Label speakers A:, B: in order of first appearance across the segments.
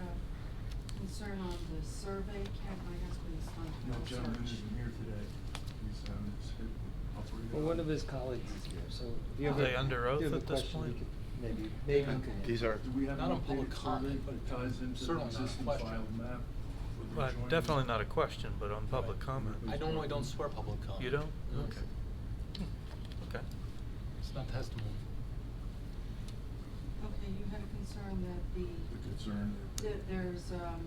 A: uh, concern on the survey, Ken, my husband is on
B: No
A: the
B: gentleman
A: search.
B: isn't here today. He's, um, he's hit operated
C: Well, one
B: on-
C: of his colleagues is here, so if you
D: Are
C: have a.
D: they under
C: if you have
D: oath
C: a
D: at this
C: question, you
D: point?
C: could Maybe, maybe you could.
E: These are,
B: Do we have
F: Not
B: an
F: on public
B: updated survey
F: comment, but
B: that ties into
F: certainly
B: the
F: not a
B: existing
F: question.
B: filed map? for the
D: Well,
B: adjoining-
D: Definitely not a question, but on public comment.
F: I normally don't swear public comment.
D: You don't?
F: No.
D: Okay. Okay.
F: It's not testimony.
A: Okay, you had a concern that
B: The
A: the,
B: concern,
A: that there's, um,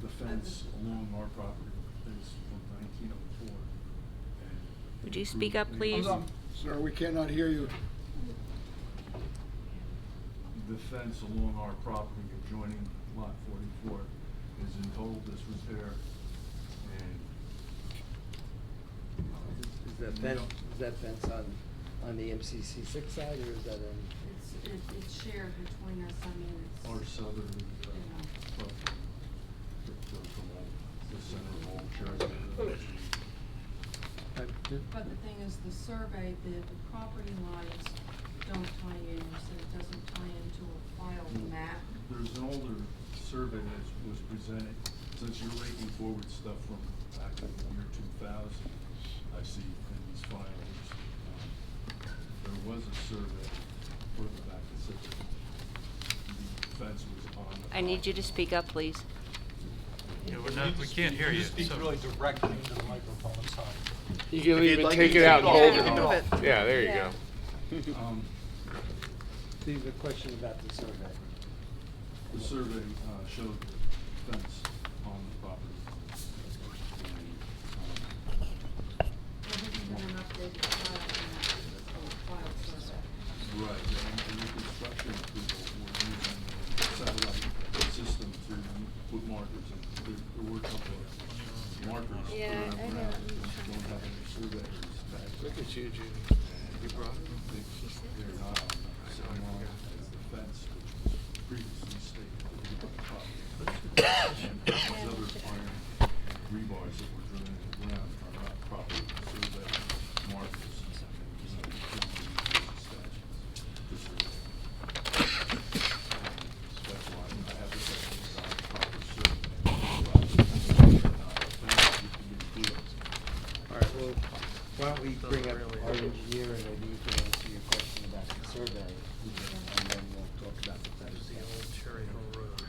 B: the fence along our property is from nineteen oh four.
G: Would you speak up, please? Hold on.
E: sir, we cannot hear you.
B: The fence along our property adjoining lot forty-four has been told this was there and.
C: Is is that
B: We
C: fence,
B: don't-
C: is that fence on, on the MCC six side, or is that in?
A: it's, it, it's shared between us, I mean, it's.
B: Our southern, uh,
A: Yeah.
B: property, the, the, the wall, the center wall, shares with the-
C: uh, do-
A: But the thing is, the survey, the, the property lines don't tie in, you said it doesn't tie into a filed map.
B: There's an older survey that was presented, since you're raking forward stuff from back in the year two thousand, I see in these files. um, There was a survey further back that said that the fence was on the.
G: I need you to speak up, please.
D: Yeah, we're not, we can't hear you,
F: Speak
D: so-
F: really directly into the microphone, I'm sorry.
H: You can
E: If you'd
H: even
E: like,
H: take
E: you
H: it
E: can
H: out and
E: take it off.
H: hold it.
E: You can do
H: off. Yeah, there you go.
G: Yeah.
B: Um,
C: do you have a question about the survey?
B: The survey uh, showed the fence on the property. And,
A: There hasn't been an updated filed map, it's called filed survey.
B: um, Right, and and the construction people were using a satellite system to put markers in. There- There were a couple of markers.
G: Yeah,
B: around
G: I know.
B: ground. They Don't have any surveyors back.
H: Look at you, Judy. You brought
B: They- They're not on the line as the fence, which was previously stated to be on the property. And those other iron rebars that were driven into the ground are not proper survey markers. You know, you can't do these statutes to survey. That's why I have this as a proper survey.
C: All right, well, why don't we bring up
D: really-
C: our engineer, and maybe he can answer your question about the survey, and then we'll talk about the fence.
D: The old Cherry Hill Road.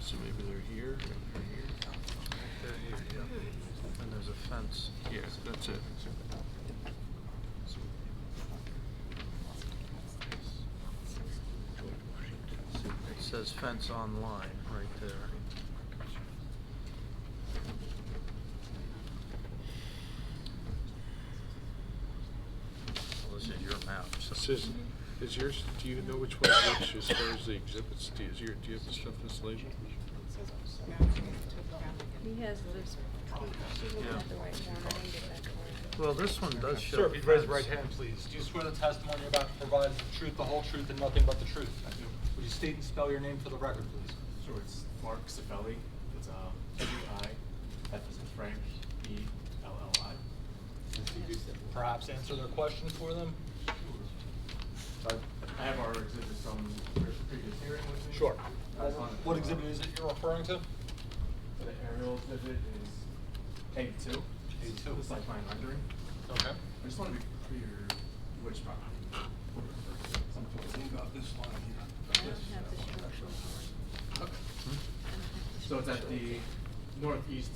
E: So maybe they're here,
D: Right there, here, yeah. And there's a fence.
E: yeah, that's it.
D: It says fence online, right there. Well, this is your map, so.
H: This is, is yours, do you know which one is which as far as the exhibits? Do you, is your, do you have the stuff that's labeled?
I: He has this, she didn't
D: Yeah.
I: have the right form, I didn't get that form.
D: Well, this one does show.
F: Sir, if you'd raise
D: fence.
F: your right hand, please. Do you swear the testimony you're about to provide is the truth, the whole truth, and nothing but the truth?
J: I do.
F: Would you state and spell your name for the record, please?
J: Sure, it's Mark Cifelli. It's um, F is in Frank, E L L I.
F: Since you do Perhaps answer their question for them?
J: So I I have our exhibit from pre- previous hearing with me. That's on-
F: Uh, What exhibit is it you're referring to?
J: So The aerial exhibit is A two.
F: A2.
J: It's like mine rendering.
F: Okay.
J: I just want to be clear which property. we're referring to. So I'm talking about this line
I: I
J: here.
I: don't have the structural form.
J: So it's at the northeast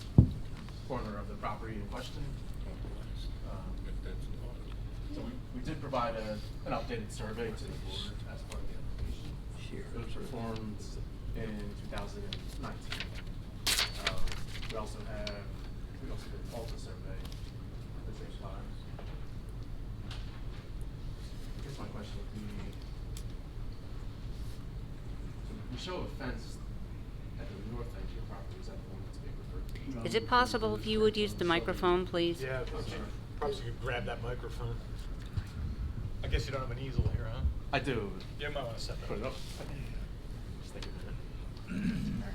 J: corner of the property in question. Um, So we, we did provide a, an updated survey to the board as part of the application. It was performed in two thousand and nineteen. Um, we also have, we also did an Alta survey at the same time. I guess my question would be, so we show a fence at the north end of your property, is that the one that's being referred to?
G: Is it possible if you would use the microphone, please?
F: Perhaps you could grab that microphone. I guess you don't have an easel here, huh?
J: I do.
F: You might want to set that
J: Put it up. Just think of it.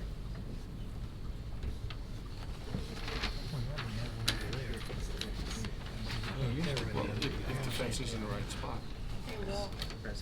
H: If the fence is in the right spot.